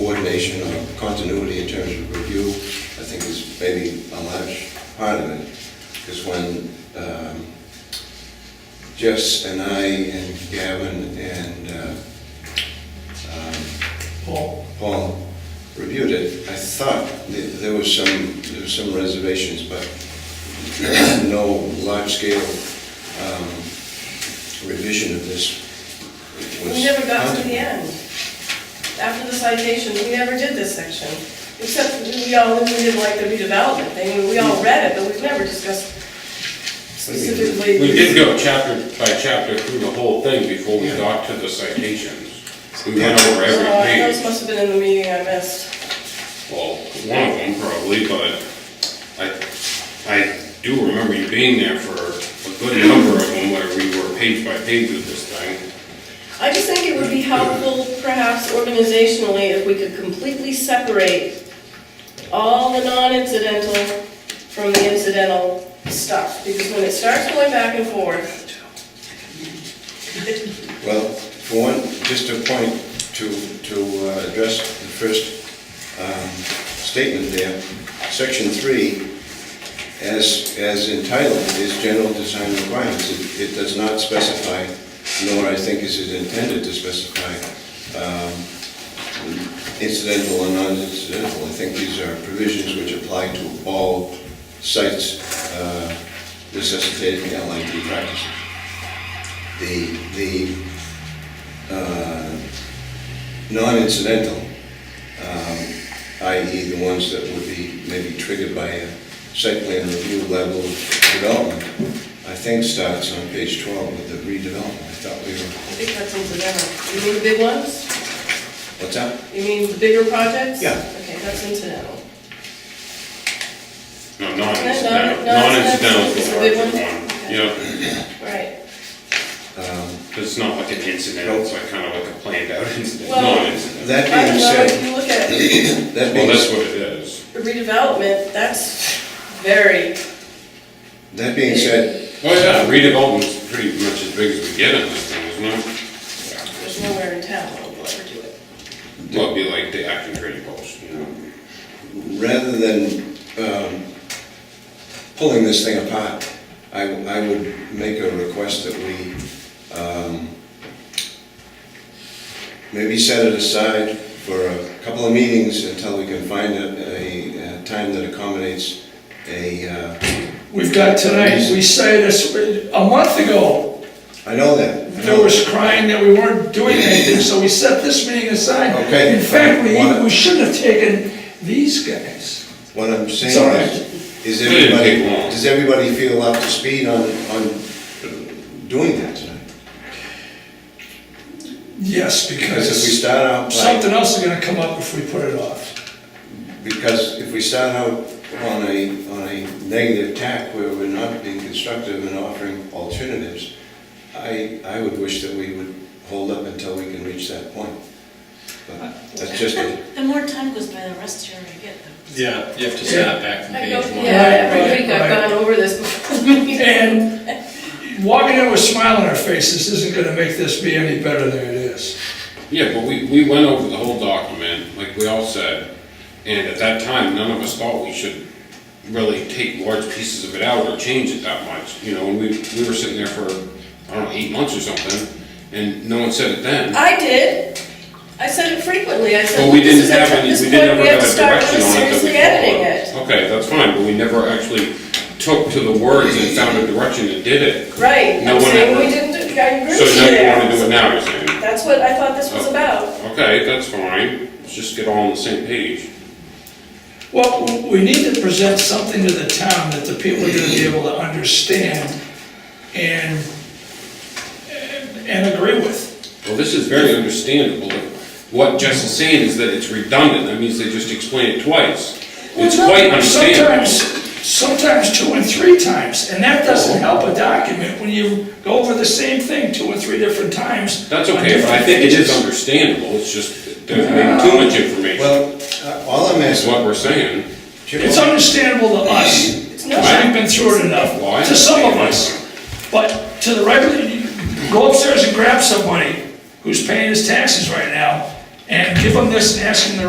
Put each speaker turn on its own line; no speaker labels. coordination or continuity in terms of review, I think is maybe a large part of it. Because when um, Jess and I and Gavin and uh, um,
Paul,
Paul reviewed it, I thought th- there was some, there was some reservations, but no large-scale um, revision of this was...
We never got to the end. After the citation, we never did this section, except we all, we didn't like the redevelopment thing, we all read it, but we've never discussed specifically.
We did go chapter by chapter through the whole thing before we got to the citations. We went over
Uh,
every
Those
page,
must have been in the meeting I missed.
well, one of them probably, but I, I do remember you being there for a good number of them where we were page by page with this thing.
I just think it would be helpful, perhaps organizationally, if we could completely separate all the non-incidental from the incidental stuff, because when it starts going back and forth,
Well, for one, just a point to, to uh, address the first um, statement there. Section three, as, as entitled, is general design requirements. It it does not specify, nor I think is it intended to specify, um, incidental and non-incidental. I think these are provisions which apply to all sites uh, necessitating LID practices the, the uh, non-incidental, um, i.e. the ones that would be maybe triggered by a site plan review level of development, I think starts on page 12 with the redevelopment. I thought we were,
I think that's incidental. You mean the big ones?
what's that?
You mean the bigger projects?
Yeah.
Okay, that's incidental.
No,
No,
non-incidental,
no,
non-incidental
it's
is
a
the
good
larger one.
one.
Yeah,
Right.
Um,
'cause it's not like an incidental, it's like kind of like a planned out incident,
Well-
non-incidental.
That
I
being
don't know, if
said,
you look at
that
Well,
being,
that's what it is.
redevelopment, that's very,
that being said,
Oh, yeah, redevelopment's pretty much as big as we get in this thing, isn't it?
there's nowhere in town that will ever do it.
Well, it'd be like the acting training post, you know?
rather than um, pulling this thing apart, I, I would make a request that we um, maybe set it aside for a couple of meetings until we can find a, a uh, time that accommodates a, uh,
we've got tonight, we say this, a month ago,
I know that. I
there
know-
was crying that we weren't doing anything, so we set this meeting aside.
Okay.
In fact, we,
Why-
we shouldn't have taken these guys.
What I'm
It's all right.
saying is, is
It didn't
everybody,
take long.
does everybody feel up to speed on, on doing that tonight?
Yes,
Because if we
because
start out like
something else is gonna come up if we put it off.
Because if we start out on a, on a negative tack where we're not being constructive and offering alternatives, I, I would wish that we would hold up until we can reach that point. But that's just, a-
The more time goes by, the rustier I get, though.
Yeah, you have to start back from
I go,
page one.
yeah, every week I've
Right, right.
gone over this before the meeting.
And walking in with a smile on our faces isn't gonna make this be any better than it is.
Yeah, but we, we went over the whole document, like we all said, and at that time, none of us thought we should really take large pieces of it out or change it that much, you know, and we, we were sitting there for, I don't know, eight months or something, and no one said it then.
I did. I said it frequently. I said,
But we
this
didn't
is
have
at
any,
this
we
point,
didn't ever
we have
have
to
a
start
direction on it that we
seriously editing it.
followed. Okay, that's fine, but we never actually took to the words and found a direction and did it.
Right,
No
I'm
one
saying
ever-
we didn't, do- I agree
So
with you
now you wanna do it
there.
now, you're saying?
That's what I thought this was
Oh.
about.
Okay, that's fine, let's just get all on the same page.
Well, we need to present something to the town that the people are gonna be able to understand and, and agree with.
Well, this is very understandable. What Jess is saying is that it's redundant, that means they just explain it twice. It's quite understandable.
Sometimes, sometimes two and three times, and that doesn't help a document when you go over the same thing two or three different times.
That's
on
okay, but I
different
think it is Uh,
pages.
understandable, it's just, it doesn't make too much information,
well, uh, all I'm
is
asking,
what we're saying.
Jim,
It's understandable to us,
not.
because we've been through it enough,
Well, I
to some of
understand.
us. But to the regular, you go upstairs and grab somebody who's paying his taxes right now, and give them this and ask them to